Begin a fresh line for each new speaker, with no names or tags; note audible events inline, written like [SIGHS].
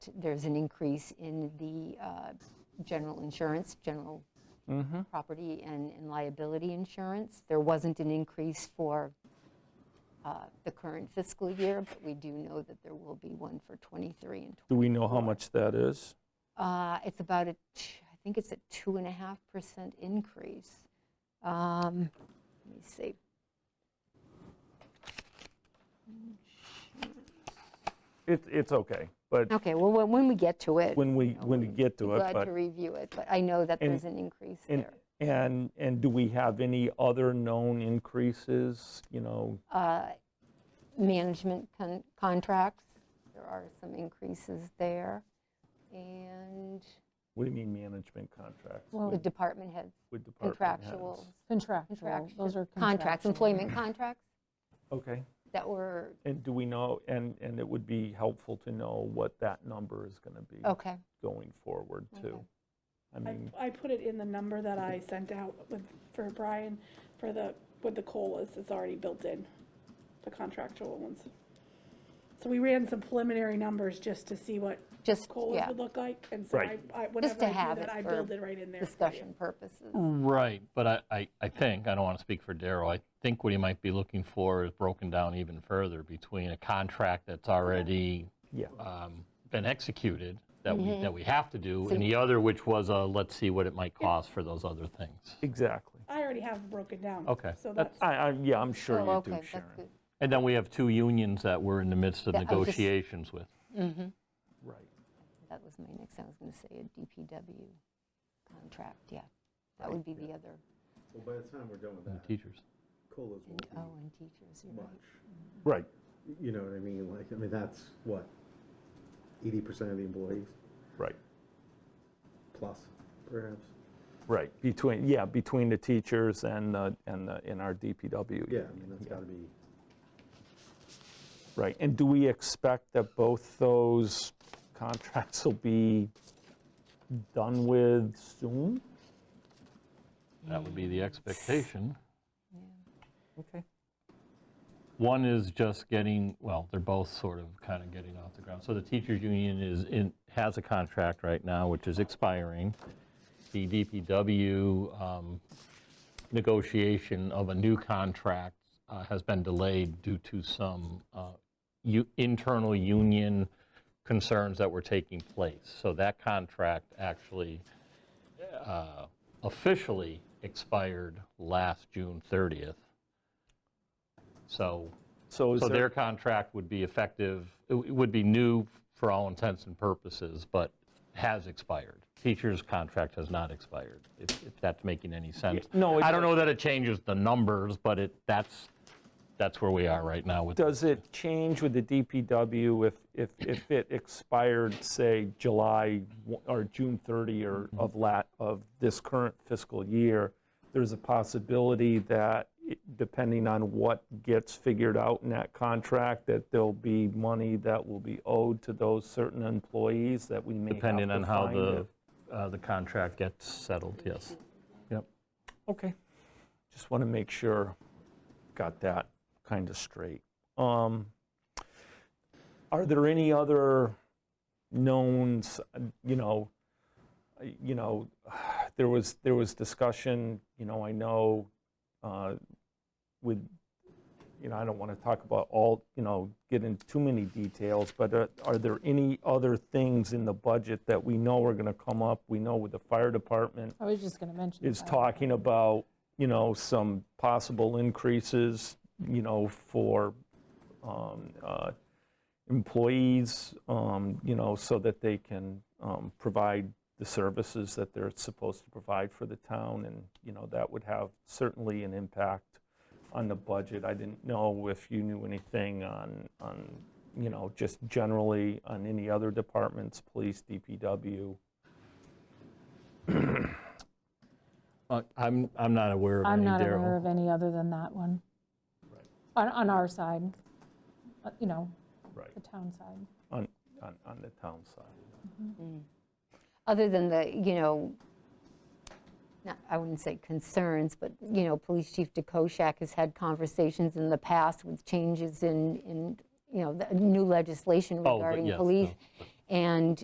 t- there's an increase in the uh, general insurance, general
Mm-hmm.
property and and liability insurance. There wasn't an increase for uh, the current fiscal year, but we do know that there will be one for '23 and
Do we know how much that is?
uh, It's about a, t- I think it's a 2.5% increase. Um, Let me see.
It, it's okay, but
Okay, well, when when we get to it,
when we, when we get to
I'm
it,
glad
but.
to review it, but I know that
And-
there's an increase
and-
there.
And, and do we have any other known increases, you know?
Uh, Management con- contracts, there are some increases there. And
What do you mean management contracts?
the department heads,
With department heads?
contractual.
Contractual, those are
contract- Contracts,
contractual.
employment contracts
Okay,
that were,
and do we know, and, and it would be helpful to know what that number is going to be
okay,
going forward too. I
I,
mean,
I put it in the number that I sent out with, for Brian, for the, with the COLAs, it's already built in, the contractual ones. So we ran some preliminary numbers just to see what
just,
COLAs
yeah,
would look like, and so I,
Right.
I, whenever
to
I do
have it
that, I
for
build it right in there. for you.
discussion purposes.
Mm.
Right, but I, I, I think, I don't want to speak for Daryl, I think what he might be looking for is broken down even further between a contract that's already
yeah,
um, been executed, that we,
Mm-hmm.
that we have to do, and the other which was a, let's see what it might cost for those other things.
exactly.
I already have broken down.
Okay,
So that's,
that's-
I, I, yeah, I'm sure
Oh,
you
okay,
do,
that's
Sharon.
good.
And then we have two unions that we're in the midst of
Yeah, I was just-
negotiations with.
Right.
That was my next, I was going to say a DPW contract, yeah. That would be the other,
Well, by the time we're done with
the
that,
Teachers.
COLAs
and,
won't
oh,
be
and teachers, you're right.
much.
Right,
You know what I mean? Like, I mean, that's what, eighty percent of the employees
right,
plus, perhaps?
right. Between, yeah, between the teachers and, the and, the in our DPW.
Yeah, I
union,
mean, that's gotta be,
Right, and do we expect that both those contracts will be done with soon?
That would be the expectation.
Okay.
One is just getting, well, they're both sort of kind of getting off the ground. So the teachers union is in, has a contract right now, which is expiring. The DPW um, negotiation of a new contract uh, has been delayed due to some uh, u- internal union concerns that were taking place. So that contract actually uh, officially expired last June 30th. So
So is
so their
there,
contract would be effective, it w- it would be new for all intents and purposes, but has expired. Teacher's contract has not expired, if if that's making any sense.
no, it
I don't know that it changes the numbers, but it, that's, that's where we are right now with,
does it change with the DPW if, if, if it expired, say, July w- or June 30 or
Mm-hmm.
of la, of this current fiscal year? There's a possibility that, it- depending on what gets figured out in that contract, that there'll be money that will be owed to those certain employees that we may have
depending
to
on how
find if-
the, uh, the contract gets settled, yes. Yep.
Okay. Just want to make sure, got that kind of straight. Um, Are there any other knowns, uh, you know, uh, you know, [SIGHS] there was, there was discussion, you know, I know uh, with, you know, I don't want to talk about all, you know, get into too many details, but uh, are there any other things in the budget that we know are going to come up? We know with the fire department,
I was just going to mention.
is
that.
talking about, you know, some possible increases, you know, for um, uh, employees, um, you know, so that they can um, provide the services that they're supposed to provide for the town, and, you know, that would have certainly an impact on the budget. I didn't know if you knew anything on, on, you know, just generally on any other departments, police, DPW.
Uh, I'm, I'm not aware of
I'm
any,
not aware
Daryl.
of any other than that one. On, on our side, uh, you know,
Right.
the town side.
On, on on the town side.
Other than the, you know, not, I wouldn't say concerns, but, you know, Police Chief DeKoschak has had conversations in the past with changes in, in, you know, the new legislation
Oh, but
regarding
yes,
police. And